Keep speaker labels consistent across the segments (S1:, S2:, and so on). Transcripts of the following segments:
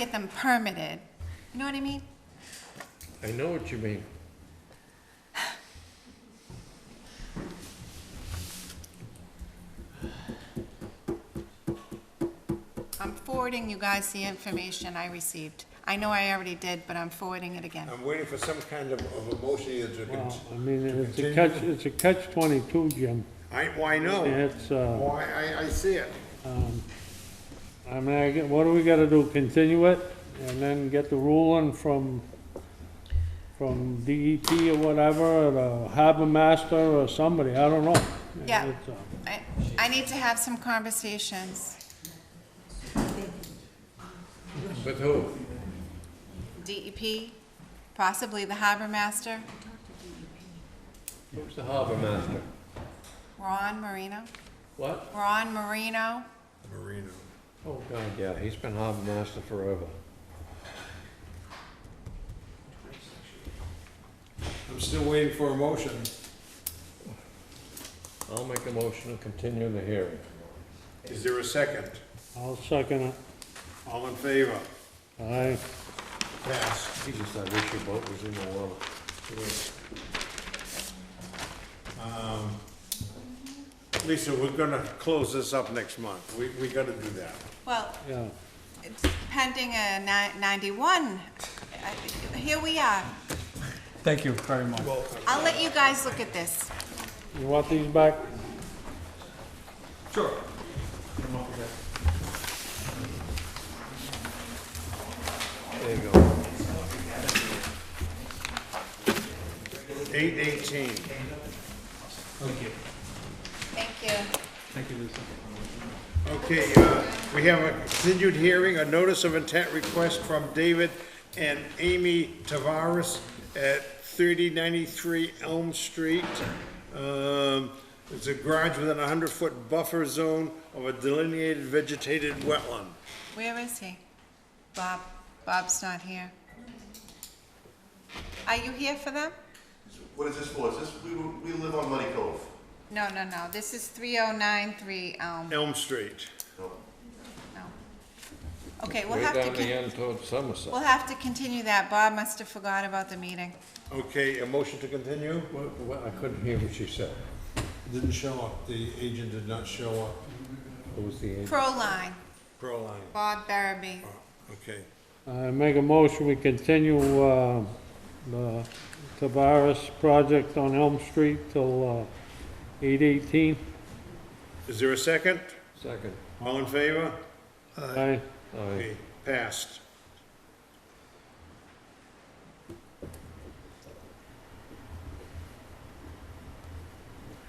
S1: get them permitted. You know what I mean?
S2: I know what you mean.
S1: I'm forwarding you guys the information I received. I know I already did, but I'm forwarding it again.
S3: I'm waiting for some kind of, of a motion either to, con-
S4: Well, I mean, it's a catch, it's a catch twenty-two, Jim.
S3: I, well, I know,
S4: It's, uh,
S3: well, I, I- I see it.
S4: I mean, I get- what do we gotta do, continue it, and then get the ruling from, from DEP or whatever, or the harbor master or somebody, I don't know.
S1: Yeah.
S4: It's, uh,
S1: I, I need to have some conversations.
S2: With who?
S1: DEP, E possibly the harbor master,
S2: Who's the harbor master?
S1: Ron Marino.
S2: What?
S1: Ron Marino,
S3: Marino.
S2: Oh, God, yeah, he's been harbor master forever.
S3: I'm still waiting for a motion.
S2: I'll make a motion to continue the hearing.
S3: Is there a second?
S4: I'll second it,
S3: All in favor?
S4: aye.
S3: Pass.
S2: Jesus, I wish your boat was in the water.
S3: Um, Lisa, we're gonna close this up next month. We, we gotta do that.
S1: well,
S4: Yeah,
S1: it's pending a ni- 91. I- Here we are.
S5: Thank you very much.
S1: I'll let you guys look at this.
S4: you want these back?
S5: Sure.
S2: There you go.
S3: Eight eighteen.
S5: Thank you.
S1: Thank you.
S5: Thank you, Lisa.
S3: Okay, uh, we have a continued hearing, a notice of intent request from David and Amy Tavares at 3093 Elm Street. Um, It's a garage within a 100-foot buffer zone of a delineated vegetated wetland.
S1: Where is he? Bob, Bob's not here. Are you here for them?
S6: What is this for? Is this, we, we live on Money Cove.
S1: No, no, no, this is 3093 Elm,
S3: Elm Street.
S1: no. Okay, we'll
S2: Way
S1: have to,
S2: down the
S1: con-
S2: end towards Somerset.
S1: we'll have to continue that. Bob must have forgot about the meeting.
S3: Okay, a motion to continue?
S2: What- what- I couldn't hear what she said.
S3: Didn't show up, the agent did not show up.
S2: Who was the agent?
S1: Proline,
S3: Proline.
S1: Bob Barabee.
S3: Okay.
S4: I make a motion, we continue, uh, the Tavares project on Elm Street till, uh, eight eighteen,
S3: Is there a second?
S2: Second.
S3: All in favor?
S4: aye.
S2: Aye.
S3: Okay, passed.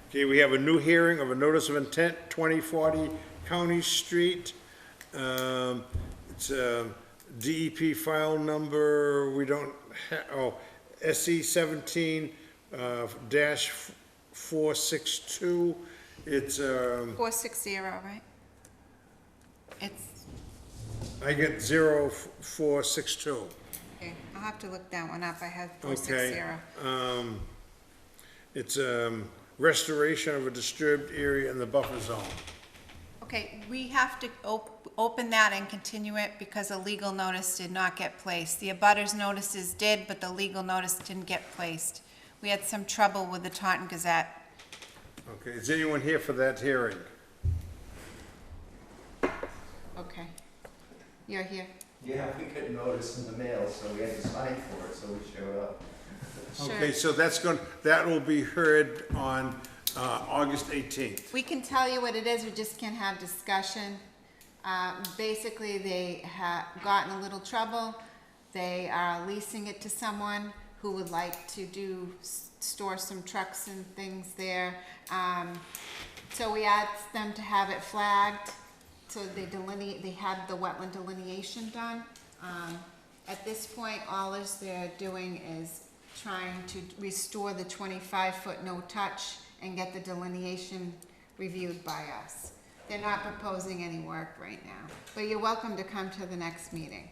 S3: Okay, we have a new hearing of a notice of intent, 2040 County Street. Um, It's um, DEP file number, we don't, ha- oh, SE 17 uh, dash 462. It's, um,
S1: 460, right? It's,
S3: I get 0462.
S1: okay, I'll have to look that one up, I had
S3: Okay.
S1: 460.
S3: Um, it's, um, restoration of a disturbed area in the buffer zone.
S1: Okay, we have to op- open that and continue it because a legal notice did not get placed. The abutters notices did, but the legal notice didn't get placed. We had some trouble with the Taunton Gazette.
S3: Okay, is anyone here for that hearing?
S1: Okay. You're here.
S6: Yeah, we got notice in the mail, so we had to sign for it, so we showed up.
S3: Okay, so that's going, that will be heard on, uh, August eighteenth.
S1: We can tell you what it is, we just can't have discussion. Uh, Basically, they have gotten a little trouble. They are leasing it to someone who would like to do, s- store some trucks and things there. Um, So we asked them to have it flagged, so they delineate, they had the wetland delineation done. Um, At this point, all is they're doing is trying to restore the twenty-five foot no-touch and get the delineation reviewed by us. They're not proposing any work right now, but you're welcome to come to the next meeting.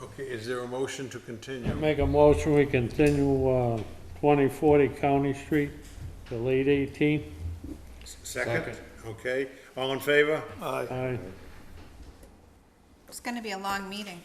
S3: Okay, is there a motion to continue?
S4: I Make a motion, we continue, uh, twenty forty County Street till eight eighteen.
S3: Second? Okay, all in favor?
S4: Aye.
S1: It's gonna be a long meeting.